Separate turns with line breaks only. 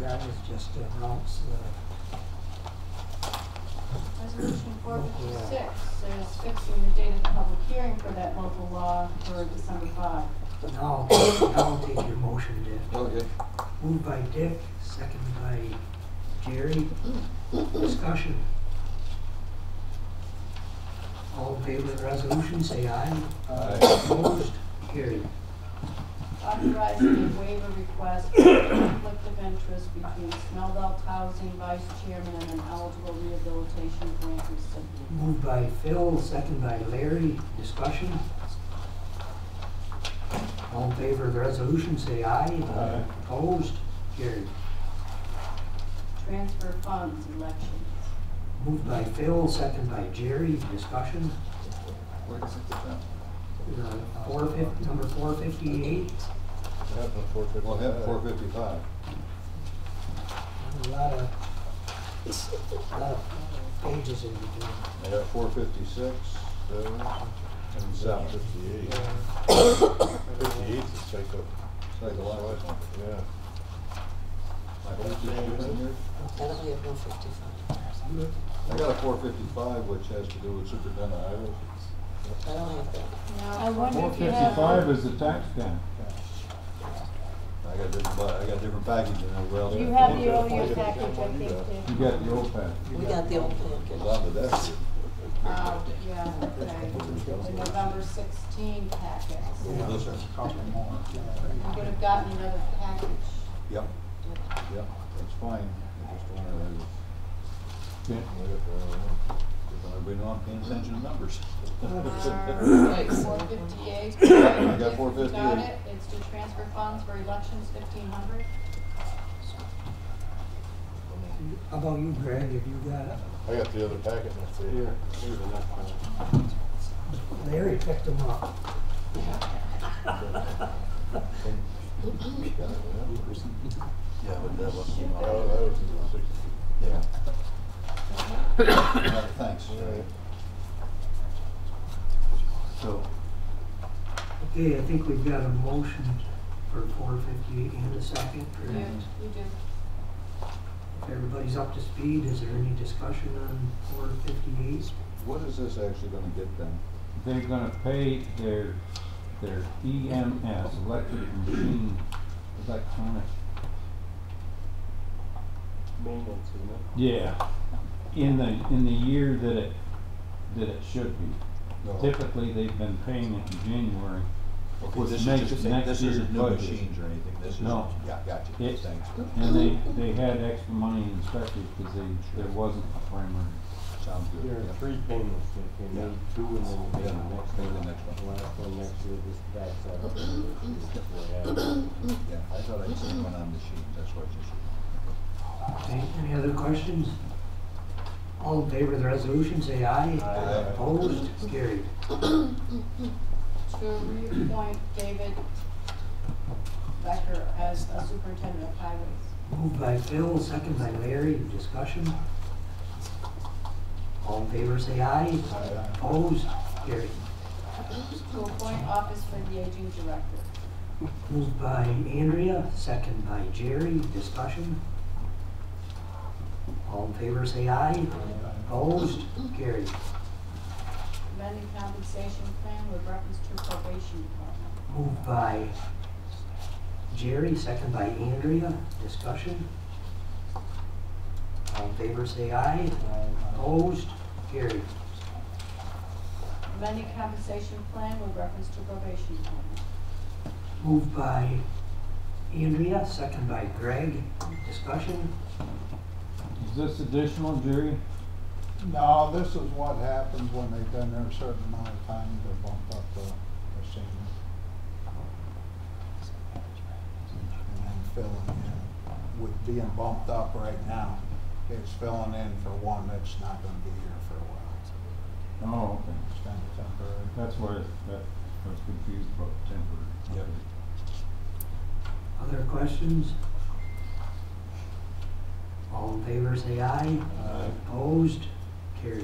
That was just to announce the,
Resolution four fifty-six is fixing the date of the public hearing for that local law for December five.
now, now I'll take your motion, Dick.
Okay.
Moved by Dick, second by Jerry. Discussion. All in favor of the resolution, say aye.
Aye.
Opposed, carried.
Authorizing a waiver request for conflict of interest between Smeldout Housing Vice Chairman and an eligible rehabilitation grant recipient.
Moved by Phil, second by Larry. Discussion. All in favor of the resolution, say aye.
Aye.
Opposed, carried.
Transfer funds elections.
Moved by Phil, second by Jerry. Discussion.
Where is it?
Uh, Four fifty, number four fifty-eight.
four fifty?
Well, hit four fifty-five.
A lot of, a lot of pages in between.
I got four fifty-six, seven, and seven.
Fifty-eight. Fifty-eight is psycho.
It's like a lot of it.
Yeah.
I hope you have it in here.
That'll be a four fifty-five.
I got a four fifty-five, which has to do with superintendent highway.
I don't have that.
I wonder
Four
if you have. one-
fifty-five is the tax cap.
I got different, bu- I got different package than everybody else.
You have the O U package, I think,
You
Dick.
got the old package.
We got the old
Goes
package.
on to that.
Oh, yeah, okay. The November sixteen packet.
Over this one.
You could have gotten another package.
Yep, yep, that's fine. I just wanted to-
Okay.
If uh, I've been on paying attention to numbers.
Four fifty-eight.
I got 458.
Got it, it's to transfer funds for elections fifteen hundred.
How about you, Greg? Have you got it?
I got the other packet, that's it. Here, here's the next one.
Larry picked them up.
Yeah, but that wasn't.
Oh, that was the sixty.
Yeah. Uh, Thanks. So,
Okay, I think we've got a motion for four fifty-eight and a second.
You, you do.
If everybody's up to speed, is there any discussion on four fifty-eight?
what is this actually gonna get them?
They're gonna pay their, their EMS, electric machine, electronic.
Maintenance, isn't it?
Yeah, in the, in the year that it, that it should be. Oh. Typically, they've been paying it in January.
Okay,
was
this is
next-
just,
next
this isn't
year's
new
budget.
machines or anything, this is,
No.
yeah, gotcha,
It-
thanks.
And they, they had extra money in inspectors because they, there wasn't a primary.
Sounds good.
There are
yeah.
three payments that came in, two and then
Yeah,
we get the next
the
payment,
next one.
the last one next year, this tax out. of it. Yeah.
Yeah, I thought I'd seen one on machines, that's what I
Okay, any other questions? All in favor of the resolution, say aye.
Aye.
Opposed, carried.
To reappoint David Becker as the superintendent of highways.
Moved by Phil, second by Larry, discussion. All in favor, say aye.
Aye.
Opposed, carried.
To appoint office for the aging director.
Moved by Andrea, second by Jerry, discussion. All in favor, say aye. Opposed, carried.
Amending compensation plan with reference to probation department.
Moved by Jerry, second by Andrea, discussion. All in favor, say aye. Opposed, carried.
Amending compensation plan with reference to probation department.
Moved by Andrea, second by Greg, discussion.
Is this additional, Jerry?
No, this is what happens when they've been there a certain amount of time, they bump up the, the senior. And then filling in, with being bumped up right now, it's filling in for one that's not gonna be here for a while.
Oh, okay.
It's kind of temporary.
That's where, that, I was confused about temporary.
Yep.
Other questions? All in favor, say aye.
should.
Opposed,